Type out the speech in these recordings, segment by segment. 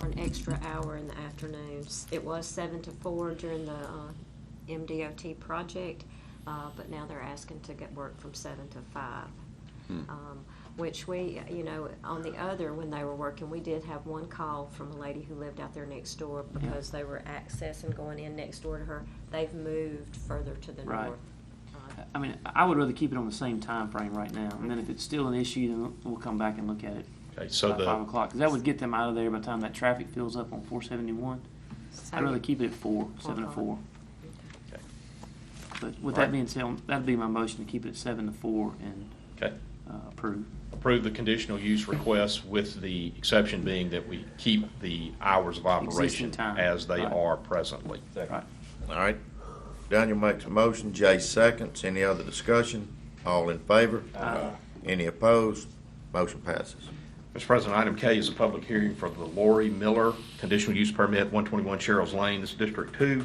um, extra hour in the afternoons. It was seven to four during the uh, MDOT project, uh, but now they're asking to get work from seven to five. Hmm. Um, Which we, you know, on the other, when they were working, we did have one call from a lady who lived out there next door because they were accessing going in next door to her. They've moved further to the Right. north. Uh, I mean, I would rather keep it on the same time frame right now, and then if it's still an issue, then we'll come back and look at it Okay, so by five the, o'clock, because that would get them out of there by the time that traffic fills up on four seventy-one. so- I'd rather keep it at four, seven to o'clock. four. Okay. But with Alright. that being said, that'd be my motion to keep it at seven to four and okay, uh, approve. approve the conditional use request with the exception being that we keep the hours of operation Existing time, as they right. are presently. Right. All right. Daniel makes a motion, Jay seconds. Any other discussion? All in favor? Aye. Any opposed? Motion passes. Mr. President, item K is a public hearing for the Lori Miller conditional use permit, 121 Cheryl's Lane, this is District 2.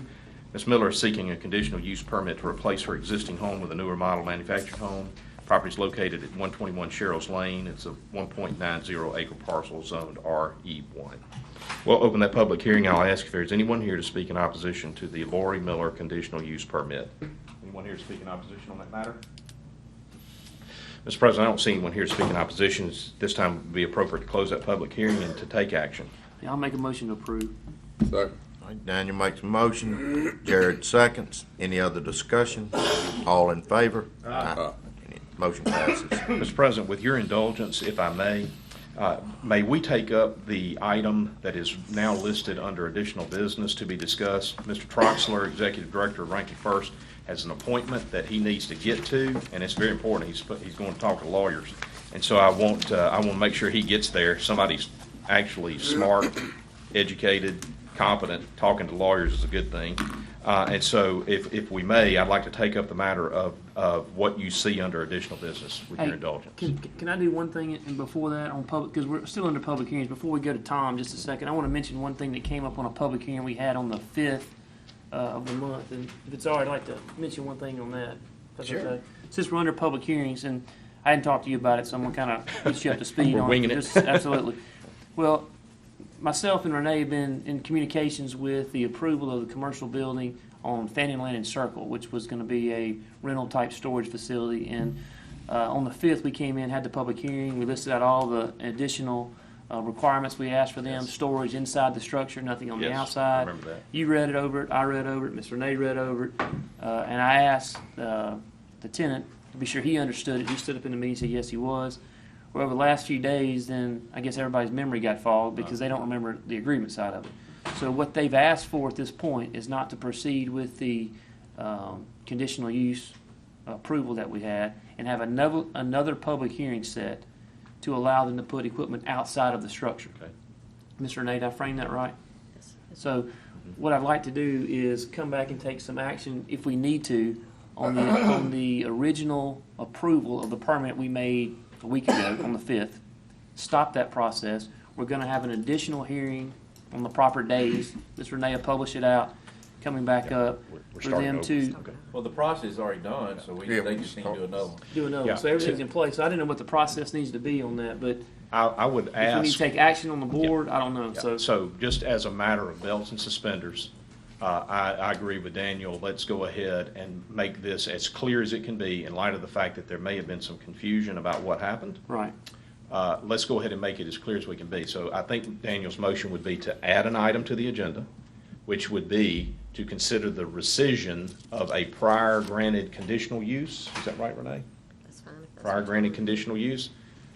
Ms. Miller is seeking a conditional use permit to replace her existing home with a newer model manufactured home. Property is located at 121 Cheryl's Lane. It's a 1.90 acre parcel zoned RE1. We'll open that public hearing. I'll ask if there's anyone here to speak in opposition to the Lori Miller conditional use permit. Anyone here to speak in opposition on that matter? Mr. President, I don't see anyone here to speak in opposition. It's- This time would be appropriate to close that public hearing and to take action. Yeah, I'll make a motion to approve. All right, Daniel makes a motion, Jared seconds. Any other discussion? All in favor? Aye. Any- Motion passes. Mr. President, with your indulgence, if I may, uh, may we take up the item that is now listed under additional business to be discussed? Mr. Troxler, Executive Director of Rankin First, has an appointment that he needs to get to, and it's very important. He's, put- he's going to talk to lawyers. And so I want, uh, I want to make sure he gets there. Somebody's actually smart, educated, competent, talking to lawyers is a good thing. Uh, And so if, if we may, I'd like to take up the matter of, of what you see under additional business with your Hey, indulgence. Can, can I do one thing and before that on public, because we're still under public hearings, before we go to Tom, just a second, I want to mention one thing that came up on a public hearing we had on the fifth uh, of the month, and if it's all right, I'd like to mention one thing on that. if that's Sure. okay. Since we're under public hearings, and I hadn't talked to you about it, so I'm gonna kind of get you up to speed We're on winging it. Just- Absolutely. Well, myself and Renee have been in communications with the approval of the commercial building on Fanning Lane and Circle, which was gonna be a rental-type storage facility, and uh, on the fifth, we came in, had the public hearing, we listed out all the additional uh, requirements we asked for them, Yes. storage inside the structure, nothing on the Yes, I outside. remember that. You read it over it, I read over it, Mr. Renee read over it, uh, and I asked uh, the tenant to be sure he understood it. He stood up in the meeting and said, yes, he was. Well, over the last few days, then I guess everybody's memory got fogged because they don't remember the agreement side of it. So what they've asked for at this point is not to proceed with the um, conditional use approval that we had and have another, another public hearing set to allow them to put equipment outside of the structure. Okay. Mr. Nate, I framed that right? Yes. So what I'd like to do is come back and take some action if we need to on the, on the original approval of the permit we made a week ago on the fifth. Stop that process. We're gonna have an additional hearing on the proper days. Ms. Renee will publish it out, coming back up we're- we're for starting them over. to Well, the process is already done, so we, Yeah, they we just need to do another one. do another. Yeah. one. So everything's in place. I didn't know what the process needs to be on that, but I, I would if we need to ask, take action on the board, I don't know, so. so just as a matter of belts and suspenders, uh, I, I agree with Daniel. Let's go ahead and make this as clear as it can be in light of the fact that there may have been some confusion about what happened. Right. Uh, Let's go ahead and make it as clear as we can be. So I think Daniel's motion would be to add an item to the agenda, which would be to consider the rescission of a prior granted conditional use. Is that right, Renee? That's fine. if that's Prior what- granted conditional use.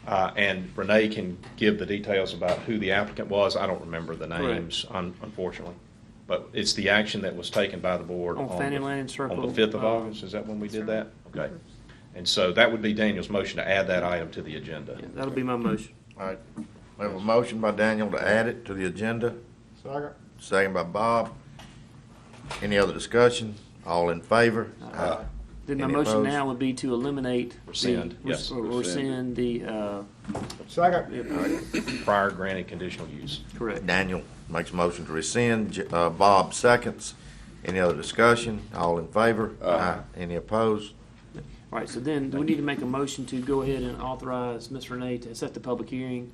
Uh, And Renee can give the details about who the applicant was. I don't remember the Correct. names, un- unfortunately. But it's the action that was taken by the board. On Fannie the- Lane and Circle, On the 5th of uh, August, is that when we did that? Okay. And so that would be Daniel's motion to add that item to the agenda. yeah, That'll be my motion. All right, we have a motion by Daniel to add it to the agenda. Second. Second by Bob. Any other discussion? All in favor? Aye. Then my Any motion opposed? now would be to eliminate. the- Rescind, yes. or Rescind the, uh, prior granted conditional use. correct. Daniel makes a motion to rescind, J- uh, Bob seconds. Any other discussion? All in favor? Aye. Any opposed? All right, so then we need to make a motion to go ahead and authorize Ms. Renee to set the public hearing